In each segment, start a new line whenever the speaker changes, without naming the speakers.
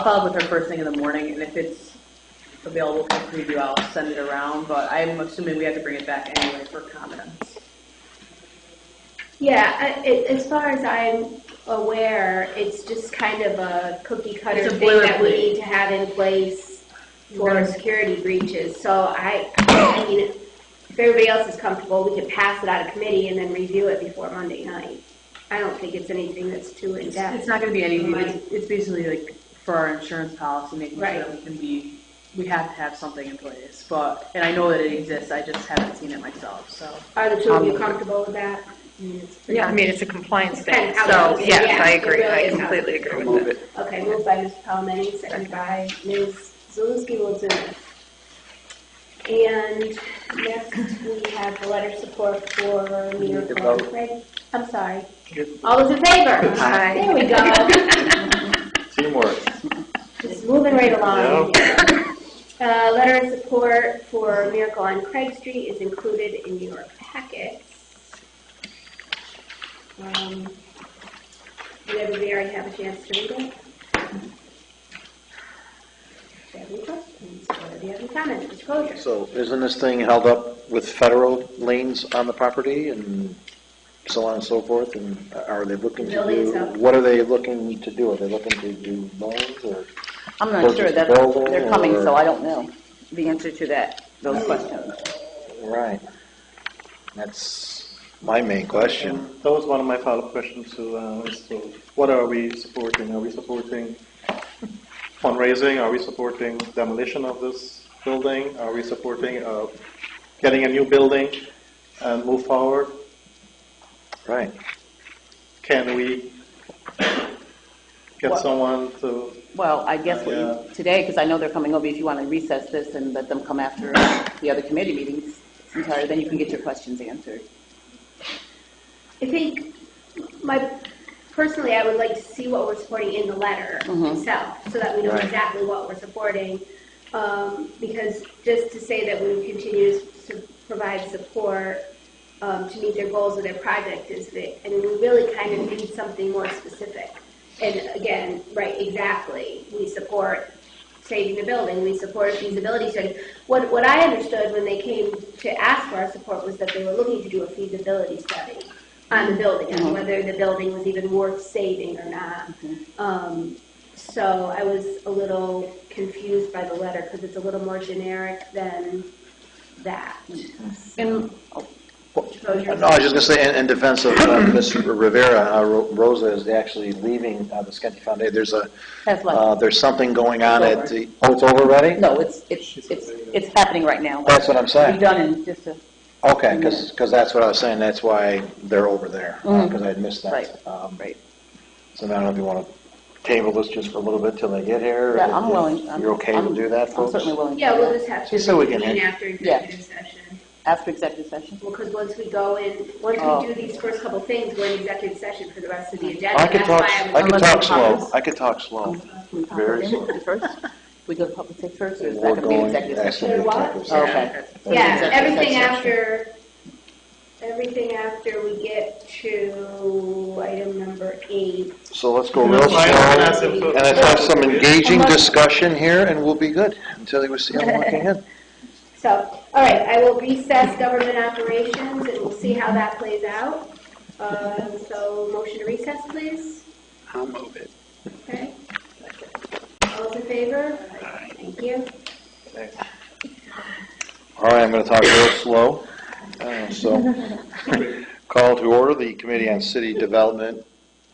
I'll follow up with her first thing in the morning, and if it's available for preview, I'll send it around, but I'm assuming we have to bring it back anyway for comments.
Yeah, I, it, as far as I'm aware, it's just kind of a cookie cutter
It's a
thing that we
boilerplate.
need to have in place for
Right.
security breaches. So I, I mean, if everybody else is comfortable, we could pass it out of committee and then review it before Monday night. I don't think it's anything that's too in
It's
depth.
not gonna be anything, it's, it's basically like for our insurance policy, making sure that we can be, we have to have something in place, but, and I know that it exists, I just haven't seen it myself, so.
Are the two of you comfortable with that? I mean, it's pretty-
Yeah, I mean, it's a compliance thing,
It's kind of
so,
outdated,
yes,
yeah,
I
it
agree,
really
I
is
completely
outdated.
agree with that.
Okay, moved by Ms. Palmetti, seconded by Ms. Zalinski Wilson. And next, we have the letter support for
We
Muir
need to
Corn.
vote.
Right? I'm sorry.
Good.
All those in favor?
Aye.
There we go.
Teamwork.
Just moving right along. Uh, letter of support for Miracle on Craig Street is included in your packets. Um, Did everybody already have a chance to read it? Do you have any questions, or do you have any comments, Mr. Crozier?
So isn't this thing held up with federal lanes on the property and so on and so forth? And are they looking to
Buildings up.
do, what are they looking to do? Are they looking to do loans or?
I'm not sure,
Purchase
that,
building
they're coming, so
or-
I don't know the answer to that, those questions.
Right. That's my main question.
That was one of my follow-up questions to, uh, is to what are we supporting? Are we supporting fundraising? Are we supporting demolition of this building? Are we supporting uh, getting a new building and move forward?
Right.
Can we get
Well-
someone to?
Well, I guess what you- today, because I know they're coming over, if you want to recess this and let them come after the other committee meetings, entirely, then you can get your questions answered.
I think my, personally, I would like to see what we're supporting in the letter
Mhm.
itself, so that we know
Right.
exactly what we're supporting. Um, Because just to say that we would continue to su- provide support um, to meet their goals of their project is, the- I mean, we really kind of need something more specific. And again, right, exactly, we support saving the building, we support feasibility study. What, what I understood when they came to ask for our support was that they were looking to do a feasibility study on the building,
Mm-hmm.
on whether the building was even worth saving or not.
Mm-hmm.
Um, So I was a little confused by the letter, because it's a little more generic than that.
And
So you're-
Mm-hmm. No, I was just going to say, in- in defense of uh, Ms. Rivera, uh, Ro- Rosa is actually leaving uh, the Scanty Foundation. There's a, uh,
that's like,
there's something going on
It's
at
over.
the, oh, it's over already?
no, it's, it's, it's, it's happening right now.
That's what I'm saying.
We're done in just a,
Okay, because, that's what I was saying, that's why they're over there,
Mhm.
because I had missed that.
Right,
Um,
right.
So now I don't know if you want to table this just for a little bit till they get here?
Yeah, I'm
if
willing. I'm-
You're okay
I'm-
to do that,
I'm
folks?
certainly willing. to
Yeah,
do
we'll
that.
just have to
Just so we can
reconvene
hang-
after executive session.
After executive session.
Well, because once we go in, once
Oh.
we do these first couple things, we're in executive session for the rest of the agenda.
I could
That's
talk,
why I'm-
I could
Unless
talk
we
slow,
pause.
I could talk slow.
Can we talk
Very
about it first? We go to public safety first, or is
We're
that going to be an
going-
executive
that's
session?
gonna be
Or what?
executive
Oh,
session.
Okay.
Yeah,
Executive
everything
session.
after, everything after we get to item number eight.
So let's go
No,
real
I- I asked
slow,
them to-
and let's have some engaging
Unless-
discussion here, and we'll be good, until you see them walking in.
So, all right, I will recess government operations, and we'll see how that plays out. Uh, So, motion to recess, please? I'll move it. Okay. All in favor? Thank you.
All right, I'm going to talk real slow. Uh, So, call to order the Committee on City Development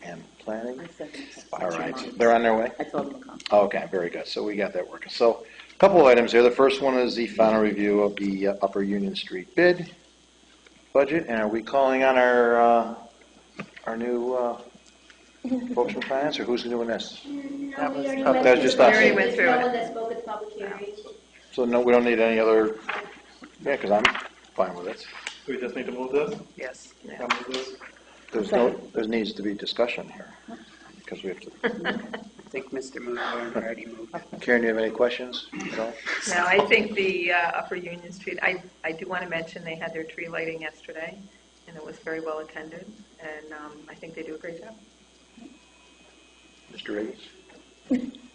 and Planning.
I said-
All right, they're on their way?
I told them to come.
Okay, very good. So we got that working. So a couple of items here. The first one is the final review of the uh, Upper Union Street bid budget, and are we calling on our, uh, our new uh, folks from finance, or who's doing this?
No, we already
That
went
was just
through
us.
it.
We already went
There's
through
no
it.
one that spoke at the public hearing.
So no, we don't need any other, yeah, because I'm fine with it.
We just need to move this.
Yes. yeah.
Can we move this?
There's no, there needs to be discussion here, because we have to,
I think Mr. Moon already moved.
Karen, do you have any questions? No?
No, I think the uh, Upper Union Street, I, I do want to mention they had their tree lighting yesterday, and it was very well attended, and um, I think they do a great job.
Mr. Riggs?